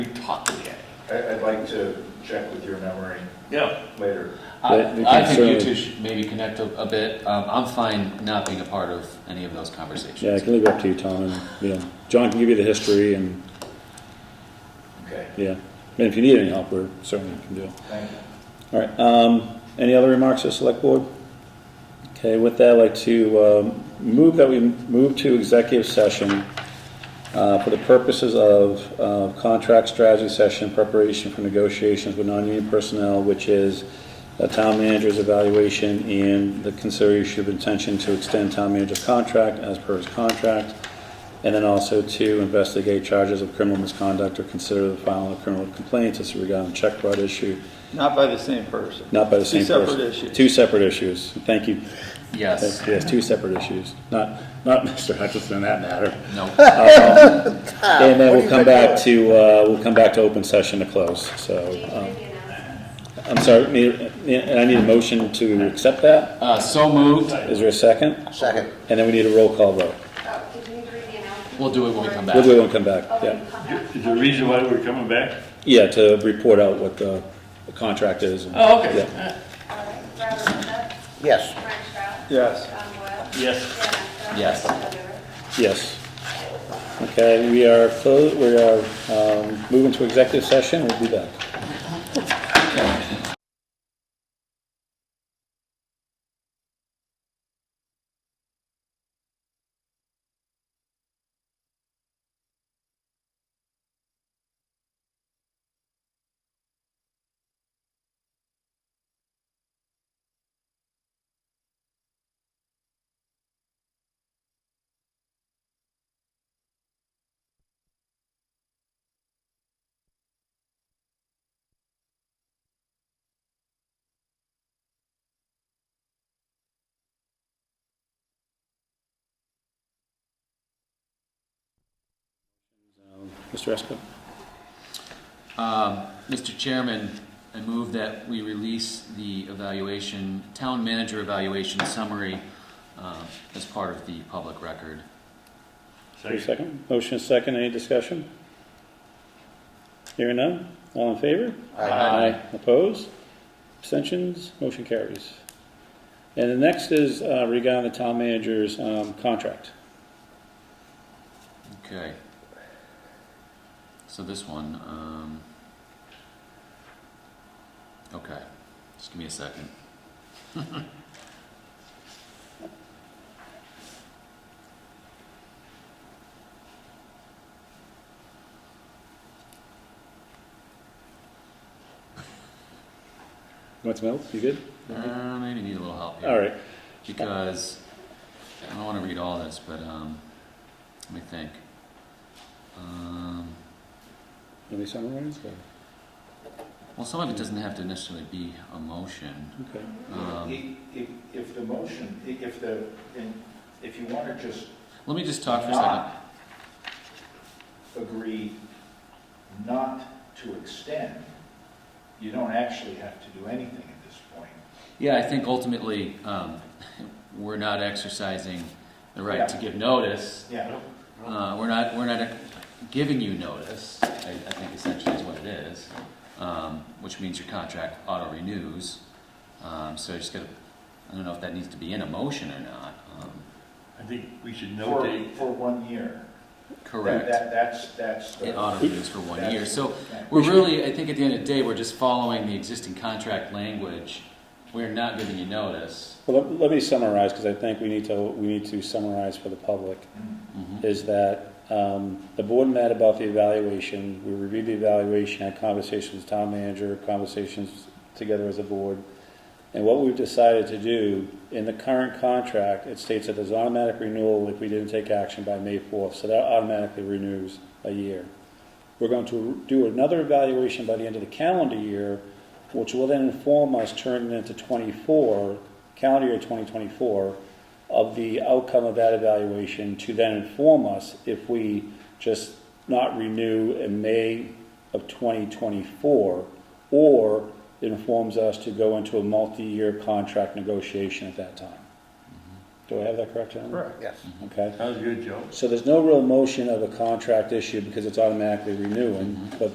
We talked yet. I- I'd like to check with your memory Yeah. later. But we I, I can think you certainly- two should maybe connect a, a bit. Um, I'm fine not being a part of any of those conversations. Yeah, I can leave it up to you, Tom, and, you know, John can give you the history and, Okay, yeah. And if you need any help, we're certainly can do it. thank you. All right, um, any other remarks to select board? Okay, with that, I'd like to, um, move that we move to executive session, uh, for the purposes of, uh, contract strategy session, preparation for negotiations with non-union personnel, which is a town manager's evaluation and the consideration of intention to extend town manager's contract as per his contract, and then also to investigate charges of criminal misconduct or consider the filing of criminal complaints as regarding check fraud issue, Not by the same person. not by the same Two separate person. issues. Two separate issues. Thank you. Yes. Yes, two separate issues. Not, not Mr. Hutchinson in that matter. No. Ah, And then we'll come back to, uh, we'll come back to open session to close, so. um, I'm sorry, need- and I need a motion to accept that. Uh, so moved. Is there a second? Second. And then we need a roll call vote. Oh, did you need to read the announcement? We'll do it when we come back. We'll do it when we come back, Oh, when yeah. you come back. Is there a reason why we're coming back? Yeah, to report out what the the contract is. and- Oh, okay. yeah. All right. Robert Moses, Yes. Frank Stroud. Yes. Tom Boyle. Yes. Dan Estes. Yes. Joe Dewar. Yes. Okay, we are closed, we are um, moving to executive session, we'll be back. Mr. Esco? Um, Mr. Chairman, I move that we release the evaluation, town manager evaluation summary uh, as part of the public record. Your Second, motion is second, any discussion? Hearing none, all in favor? Opposed? Abstentions? Motion carries. And the next is uh, regarding the town manager's um, contract. Okay. So this one, um, okay, just give me a second. Want some help? You good? Uh, maybe need a little help here. All right, because I don't want to read all this, but um, let me think. Um, let me summarize. or- well, some of it doesn't have to necessarily be a motion. Okay. Um, If, if the motion, if the, and if you want to just let me just talk for a second. agree not to extend, you don't actually have to do anything at this point. Yeah, I think ultimately um, we're not exercising the right to give notice. Yeah, Uh, we're not, we're not giving you notice, I, I think essentially is what it is, um, which means your contract auto renews. Um, so you just gotta, I don't know if that needs to be in a motion or not, um, I think we should for, notate for one year. correct. That, that's, that's the. It auto renews for one year, so Okay. we're really, I think at the end of the day, we're just following the existing contract language. We're not giving you notice. Well, let- let me summarize, because I think we need to, we need to summarize for the public. Mhm. is that um, the board met about the evaluation, we reviewed the evaluation, had conversations with town manager, conversations together as a board. And what we've decided to do, in the current contract, it states that there's automatic renewal if we didn't take action by May 4th, so that automatically renews a year. We're going to do another evaluation by the end of the calendar year, which will then inform us, turning into 24, calendar year 2024, of the outcome of that evaluation to then inform us if we just not renew in May of 2024, or it informs us to go into a multi-year contract negotiation at that time. Do I have that correct, gentlemen? Yes. Okay. Sounds good, Joe. So there's no real motion of a contract issue because it's automatically renewing, but